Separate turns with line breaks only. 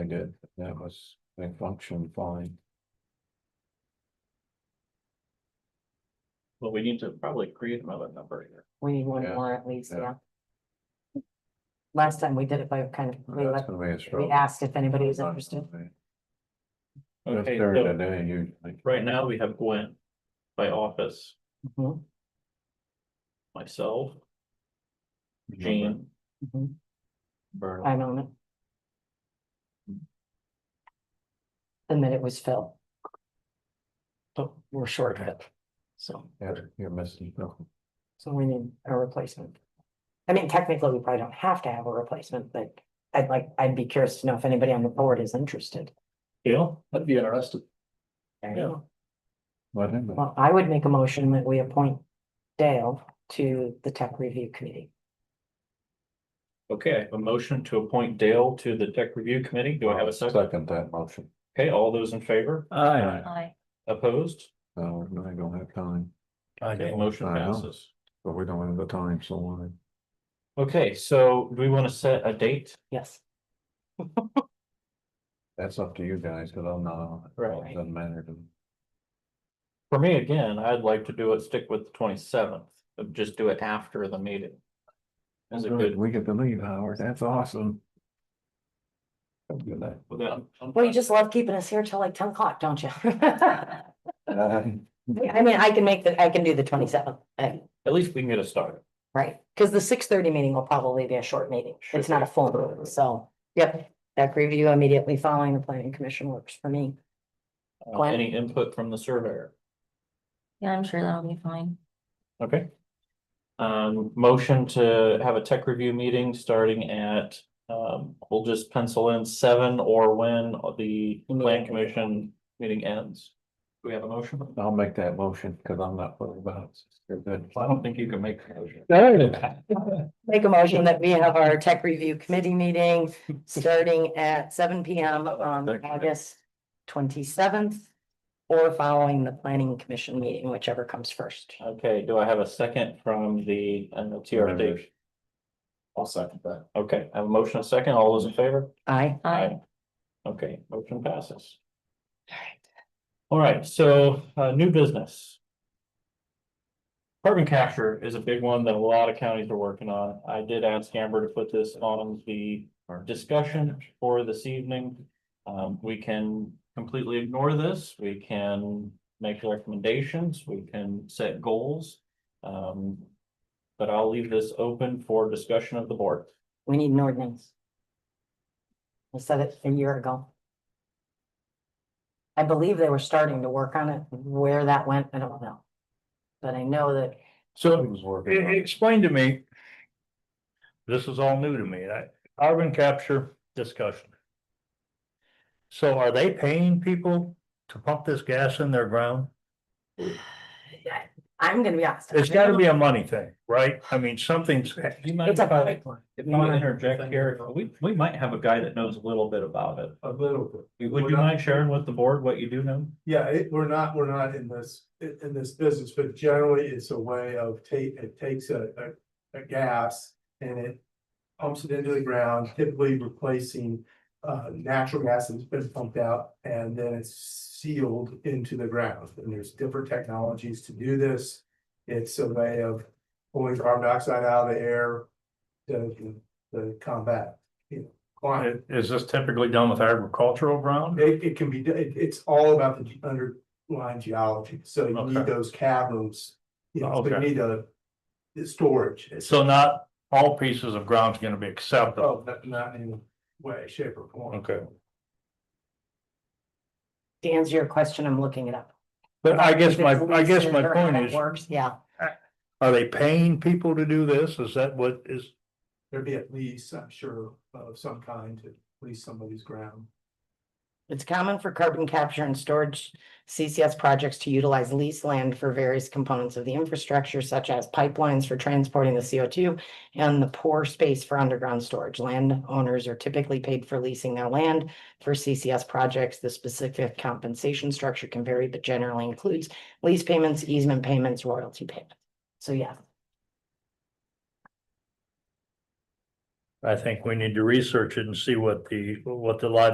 did, that was, they functioned fine.
But we need to probably create another number here.
We need one
Yeah,
more at least,
yeah.
yeah. Last time we did it by kind of, we
That's
let-
gonna be a
we
struggle.
asked if anybody was interested.
That's
Okay,
there
so
today usually.
right now we have Gwen by office,
Mhm,
myself, Jean,
mhm.
Vernon.
I'm on it. And then it was Phil. But we're short of it, so,
Yeah, you're missing. something.
so we need a replacement. I mean, technically, we probably don't have to have a replacement, but I'd like, I'd be curious to know if anybody on the board is interested.
Gail, I'd be interested.
There you
Yeah.
go.
What happened?
Well, I would make a motion that we appoint Dale to the tech review committee.
Okay, I have a motion to appoint Dale to the tech review committee. Do I have a second?
Second that motion,
Okay, all those in favor?
Aye.
Aye.
Opposed?
so I don't have time,
Okay, motion
I know.
passes.
but we don't have the time, so why?
Okay, so do we want to set a date?
Yes,
that's up to you guys, cause I'm not on it. so
Right.
it Doesn't matter to me.
For me, again, I'd like to do it, stick with the twenty seventh, but just do it after the meeting. Is it good?
We get to leave, Howard, that's awesome. Have a Good night.
with that?
well, you just love keeping us here till like ten o'clock, don't you? I
Uh,
mean, I can make the, I can do the twenty seventh,
At least we can get a start.
right, because the six thirty meeting will probably be a short meeting, it's not a full meeting, so, yep. Tech review immediately following the planning commission works for me,
Uh,
Gwen?
Any input from the surveyor?
Yeah, I'm sure that'll be fine.
Okay. Um, motion to have a tech review meeting starting at, um, we'll just pencil in seven or when the plan commission meeting ends. Do we have a motion?
I'll make that motion, cause I'm not fully about. Good.
I don't think you can make a motion.
make a motion that we have our tech review committee meeting starting at seven P M on August twenty seventh. Or following the planning commission meeting, whichever comes first.
Okay, do I have a second from the, uh TRD? I'll second that. Okay, I have a motion, a second, all those in favor?
Aye.
Aye.
Okay, motion passes. All right, so, uh, new business. Carbon capture is a big one that a lot of counties are working on. I did ask Amber to put this on the discussion for this evening. Um, we can completely ignore this, we can make recommendations, we can set goals. Um, but I'll leave this open for discussion of the board.
We need an ordinance. I said it a year ago. I believe they were starting to work on it. Where that went, I don't know. But I know that
It
So
was working.
e- explain to me. This is all new to me, I, carbon capture discussion. So are they paying people to pump this gas in their ground?
I'm gonna be honest.
It's gotta be a money thing, right? I mean, something's,
You mind
It's
if I-
a.
If I might interject here, we, we might have a guy that knows a little bit about it.
A little bit.
Would you mind sharing with the board what you do know?
Yeah, it, we're not, we're not in this, in, in this business, but generally it's a way of take, it takes a, a, a gas and it pumps it into the ground, typically replacing, uh, natural gas that's been pumped out and then it's sealed into the ground. And there's different technologies to do this. It's a way of pulling carbon dioxide out of the air to, to combat, you know, climate
is this typically done with agricultural ground?
It, it can be, it, it's all about the ge- underlying geology, so you need
Okay.
those caverns. You know, so you
Okay.
need a, the storage. It's-
So not all pieces of ground's gonna be acceptable.
Oh, not, not in a way, shape or form.
Okay.
To answer your question, I'm looking it up.
But I guess my,
If it's
I guess my
leases or how
point
that
is,
Works, yeah.
are they paying people to do this? Is that what is?
There'd be at least, I'm sure, of some kind to lease somebody's ground.
It's common for carbon capture and storage CCS projects to utilize leased land for various components of the infrastructure such as pipelines for transporting the CO2 and the pore space for underground storage. Landowners are typically paid for leasing their land for CCS projects. The specific compensation structure can vary, but generally includes lease payments, easement payments, royalty payments. So yeah,
I think we need to research it and see what the, what the liability